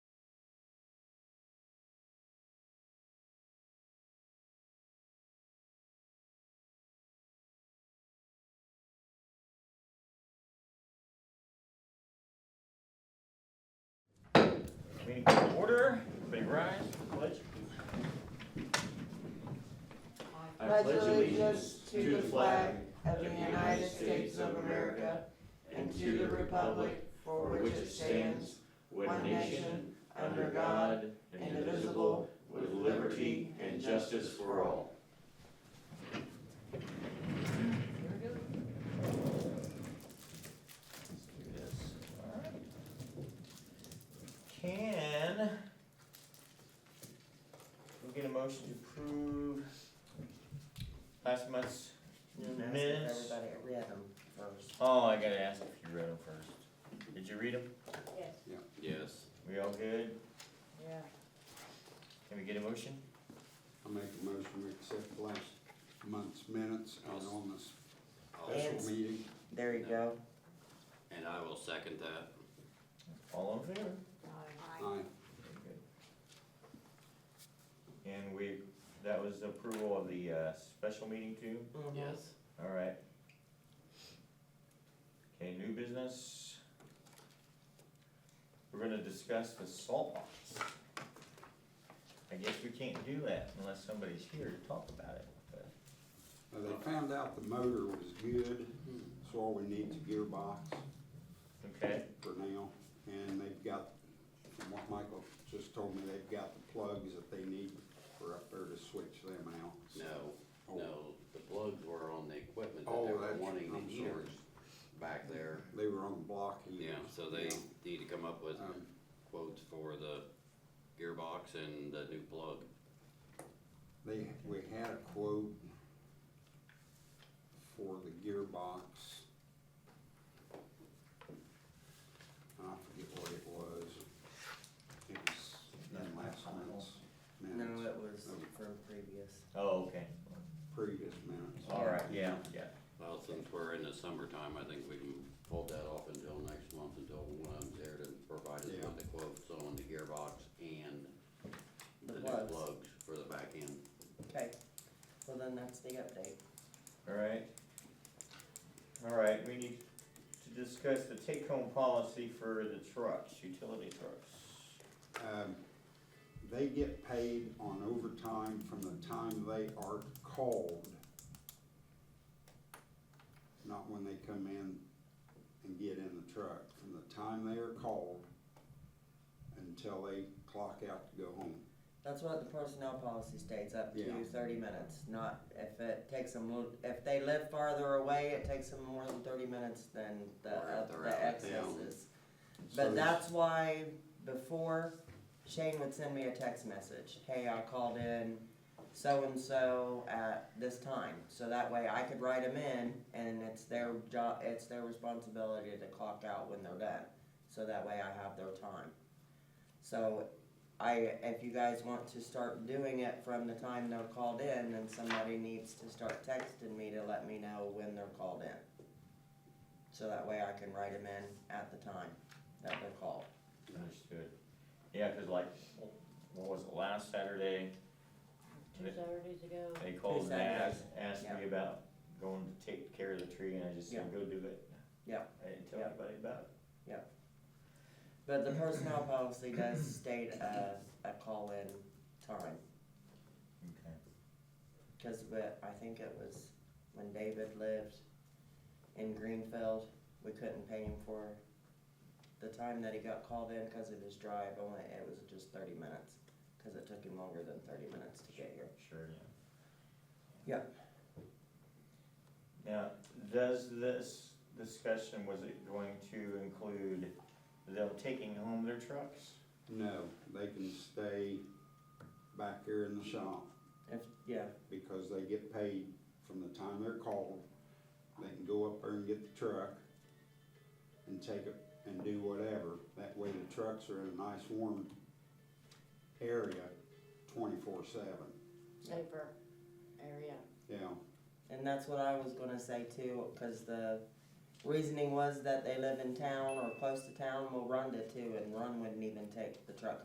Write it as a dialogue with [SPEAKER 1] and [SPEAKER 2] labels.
[SPEAKER 1] order. Everybody rise for the pledge.
[SPEAKER 2] I pledge allegiance to the flag of the United States of America and to the republic for which it stands, one nation, under God, indivisible, with liberty and justice for all.
[SPEAKER 1] Let's do this. All right. Can we get a motion to approve last month's minutes?
[SPEAKER 2] Everybody read them first.
[SPEAKER 1] Oh, I gotta ask if you read them first. Did you read them?
[SPEAKER 3] Yes.
[SPEAKER 4] Yes,
[SPEAKER 1] We all good?
[SPEAKER 2] Yeah.
[SPEAKER 1] Can we get a motion?
[SPEAKER 4] I make a motion we accept last month's minutes and on the
[SPEAKER 2] Yes.
[SPEAKER 4] special meeting.
[SPEAKER 2] There you go.
[SPEAKER 5] And I will second that.
[SPEAKER 1] All in favor?
[SPEAKER 4] Aye,
[SPEAKER 1] Very good. And we, that was approval of the, uh, special meeting too?
[SPEAKER 2] Uh-huh.
[SPEAKER 5] Yes.
[SPEAKER 1] Alright. Okay, new business. We're gonna discuss the salt box. I guess we can't do that unless somebody's here to talk about it, but
[SPEAKER 4] Now, they found out the motor was good, so all we need's a gearbox
[SPEAKER 1] Okay,
[SPEAKER 4] for now. And they've got, from what Michael just told me, they've got the plugs that they need for up there to switch them out.
[SPEAKER 5] No,
[SPEAKER 4] Oh,
[SPEAKER 5] no, the plugs were on the equipment that
[SPEAKER 4] Oh,
[SPEAKER 5] they were
[SPEAKER 4] that's-
[SPEAKER 5] wanting
[SPEAKER 4] I'm
[SPEAKER 5] the heaters
[SPEAKER 4] sorry.
[SPEAKER 5] back there.
[SPEAKER 4] They were on the block. he-
[SPEAKER 5] Yeah, so they
[SPEAKER 4] yeah.
[SPEAKER 5] need to come up with
[SPEAKER 4] Um,
[SPEAKER 5] quotes for the gearbox and the new plug.
[SPEAKER 4] They, we had a quote for the gearbox. I forget what it was. It was in last month's
[SPEAKER 2] No,
[SPEAKER 4] minutes,
[SPEAKER 2] it was from previous.
[SPEAKER 1] oh, okay,
[SPEAKER 4] previous minutes.
[SPEAKER 1] alright, yeah, yeah.
[SPEAKER 5] Well, since we're in the summertime, I think we can hold that off until next month, until one of them's there to provide us
[SPEAKER 4] Yeah.
[SPEAKER 5] with the quotes on the gearbox and
[SPEAKER 2] The
[SPEAKER 5] the new
[SPEAKER 2] plugs.
[SPEAKER 5] plugs for the back end.
[SPEAKER 2] Okay, well then that's the update.
[SPEAKER 1] Alright. Alright, we need to discuss the take-home policy for the trucks, utility trucks.
[SPEAKER 4] Um, they get paid on overtime from the time they are called. Not when they come in and get in the truck, from the time they are called until they clock out to go home.
[SPEAKER 2] That's what the personnel policy states, up to
[SPEAKER 4] Yeah.
[SPEAKER 2] thirty minutes, not if it takes them, lo- if they live farther away, it takes them more than thirty minutes than the,
[SPEAKER 5] Or if
[SPEAKER 2] uh,
[SPEAKER 5] they're out
[SPEAKER 2] the
[SPEAKER 5] of
[SPEAKER 2] excesses.
[SPEAKER 4] So
[SPEAKER 2] But that's why before Shane would send me a text message, hey, I called in so-and-so at this time, so that way I could write them in, and it's their job, it's their responsibility to clock out when they're done, so that way I have their time. So, I, if you guys want to start doing it from the time they're called in, then somebody needs to start texting me to let me know when they're called in. So that way I can write them in at the time that they're called.
[SPEAKER 1] Understood. Yeah, cause like, what was it, last Saturday?
[SPEAKER 3] Two Saturdays ago.
[SPEAKER 1] They called and asked, asked
[SPEAKER 2] Yeah.
[SPEAKER 1] me about going to take care of the tree, and I just said,
[SPEAKER 2] Yeah.
[SPEAKER 1] go do it.
[SPEAKER 2] Yeah.
[SPEAKER 1] I didn't tell
[SPEAKER 2] Yeah.
[SPEAKER 1] anybody about
[SPEAKER 2] But the personnel policy does state a, a call-in time,
[SPEAKER 1] it. Okay.
[SPEAKER 2] cause we- I think it was when David lived in Greenfield, we couldn't pay him for the time that he got called in because of his drive, only, it was just thirty minutes, cause it took him longer than thirty minutes to get here.
[SPEAKER 1] Sure, yeah.
[SPEAKER 2] Yeah.
[SPEAKER 1] Now, does this discussion, was it going to include them taking home their trucks?
[SPEAKER 4] No, they can stay back here in the shop
[SPEAKER 2] If, yeah,
[SPEAKER 4] because they get paid from the time they're called. They can go up there and get the truck and take it and do whatever. That way the trucks are in a nice warm area twenty-four seven.
[SPEAKER 3] Safer area.
[SPEAKER 4] Yeah,
[SPEAKER 2] And that's what I was gonna say too, cause the reasoning was that they live in town or close to town, well, Rhonda too, and Ron wouldn't even take the truck